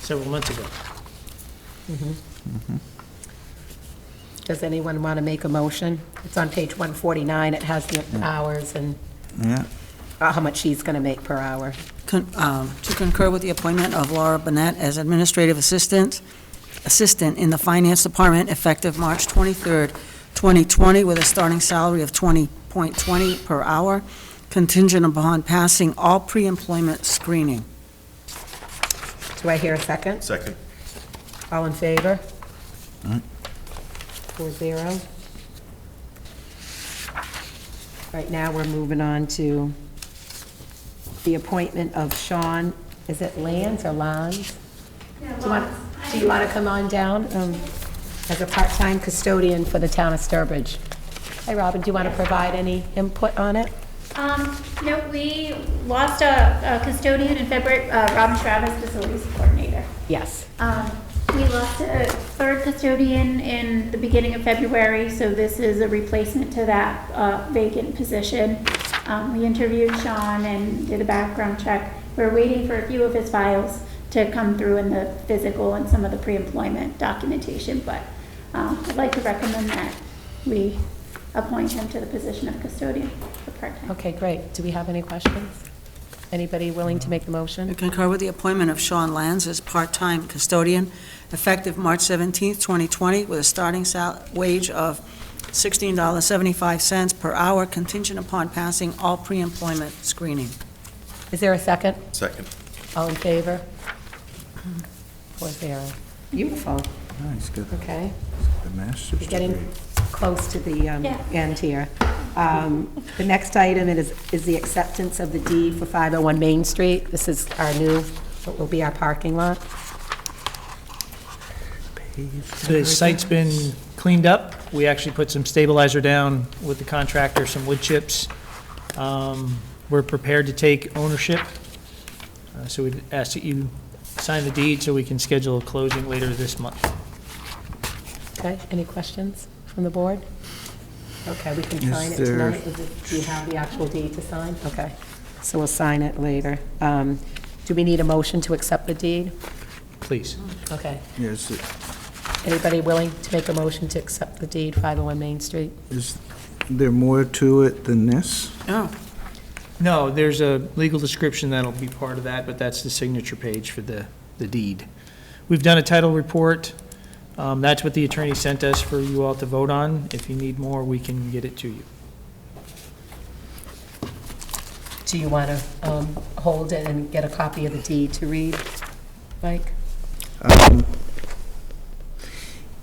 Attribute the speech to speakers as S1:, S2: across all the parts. S1: several months ago.
S2: Does anyone want to make a motion? It's on page 149, it has the hours and uh,
S3: Yeah,
S2: how much she's going to make per hour.
S4: Con- um, to concur with the appointment of Laura Burnett as Administrative Assistant, Assistant in the Finance Department effective March 23rd, 2020, with a starting salary of 20.20 per hour, contingent upon passing all pre-employment screening.
S2: Do I hear a second?
S5: Second.
S2: All in favor? Four zero. All right, now we're moving on to the appointment of Sean, is it Lands or Lons? Do you want- do you want to come on down um, as a part-time custodian for the town of Sturbridge? Hey, Robin, do you want to provide any input on it?
S6: Um, no, we lost a, a custodian in February, uh, Robin Travis, facilities coordinator.
S2: Yes.
S6: Um, we lost a third custodian in the beginning of February, so this is a replacement to that, uh, vacant position. Um, we interviewed Sean and did a background check. We're waiting for a few of his files to come through in the physical and some of the pre-employment documentation, but, um, I'd like to recommend that we appoint him to the position of custodian for part-time.
S2: Okay, great. Do we have any questions? Anybody willing to make the
S4: To
S2: motion?
S4: concur with the appointment of Sean Lands as part-time custodian effective March 17th, 2020, with a starting sal, wage of $16.75 per hour contingent upon passing all pre-employment screening.
S2: Is there a second?
S5: Second.
S2: All in favor? Four zero. Beautiful,
S3: nice, good,
S2: okay.
S3: Oh, the master's
S2: We're getting
S3: degree.
S2: close to the um,
S6: Yeah.
S2: end here. Um, The next item is, is the acceptance of the deed for 501 Main Street. This is our new, what will be our parking lot.
S1: The site's been cleaned up. We actually put some stabilizer down with the contractor, some wood chips. Um, We're prepared to take ownership, Uh, so we'd ask that you sign the deed so we can schedule a closing later this month.
S2: Okay, any questions from the board? Okay, we can
S3: Is
S2: sign it
S3: there-
S2: tonight. Is it- Do you have the actual deed to sign? Okay, so we'll sign it later. Um, Do we need a motion to accept the deed?
S1: Please.
S2: Okay.
S3: Yes, it-
S2: Anybody willing to make a motion to accept the deed, 501 Main Street?
S3: is there more to it than this?
S4: Oh,
S1: No, there's a legal description that'll be part of that, but that's the signature page for the, the deed. We've done a title report. Um, That's what the attorney sent us for you all to vote on. If you need more, we can get it to you.
S2: Do you want to hold it and get a copy of the deed to read, Mike?
S3: Um,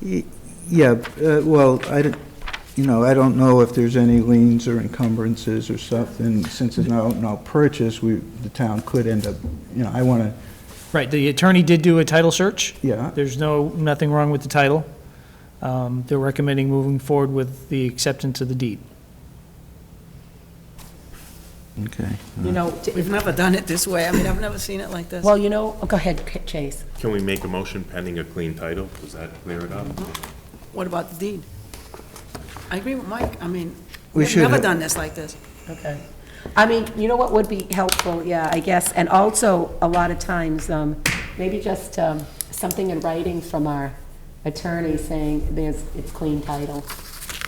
S3: y- Yeah, uh, well, I don't, you know, I don't know if there's any liens or encumbrances or something. Since it's not, no purchase, we, the town could end up, you know, I want to,
S1: Right, the attorney did do a title search.
S3: yeah,
S1: There's no, nothing wrong with the title. Um, They're recommending moving forward with the acceptance of the deed.
S3: okay.
S2: You know, d-
S4: we've never done it this way. I mean, I've never seen it like this.
S2: well, you know, go ahead, Chase.
S5: Can we make a motion pending a clean title? Does that clear it up?
S4: What about the deed? I agree with Mike. I mean,
S3: We
S4: we've
S3: should
S4: never
S3: have-
S4: done this like this.
S2: Okay. I mean, you know what would be helpful, yeah, I guess, and also, a lot of times, um, maybe just um, something in writing from our attorney saying there's, it's clean title.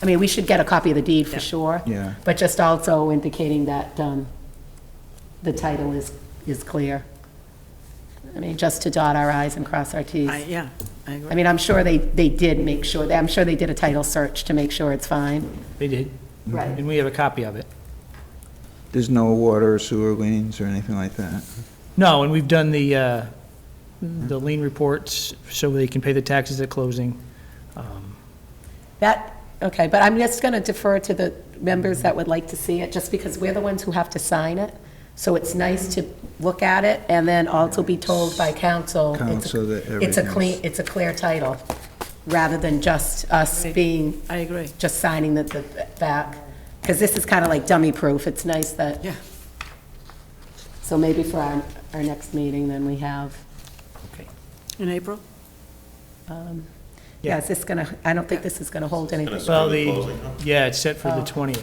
S2: I mean, we should get a copy of the deed for sure.
S3: Yeah.
S2: But just also indicating that um, the title is, is clear. I mean, just to dot our i's and cross our t's.
S4: I, yeah, I agree.
S2: I mean, I'm sure they, they did make sure, I'm sure they did a title search to make sure it's fine.
S1: They did,
S2: Right.
S1: and we have a copy of it.
S3: There's no water or sewer liens or anything like that?
S1: No, and we've done the, uh, the lien reports so they can pay the taxes at closing. Um,
S2: That, okay, but I'm just going to defer to the members that would like to see it, just because we're the ones who have to sign it. So it's nice to look at it and then also be told by council. it's a-
S3: Council that
S2: It's a clean, it's
S3: everything's-
S2: a clear title, rather than just us being,
S4: I agree.
S2: just signing the, the back. Because this is kind of like dummy proof. It's nice that.
S4: Yeah.
S2: So maybe for our, our next meeting, then we have.
S4: In April?
S2: Um,
S1: Yeah.
S2: Yeah, is this going to, I don't think this is going to hold anything
S1: Well,
S5: the
S1: the,
S5: closing, huh?
S1: yeah, it's set for the
S2: Oh.
S1: 20th.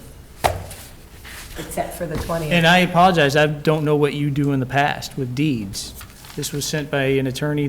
S2: except for the 20th.
S1: And I apologize, I don't know what you do in the past with deeds. This was sent by an attorney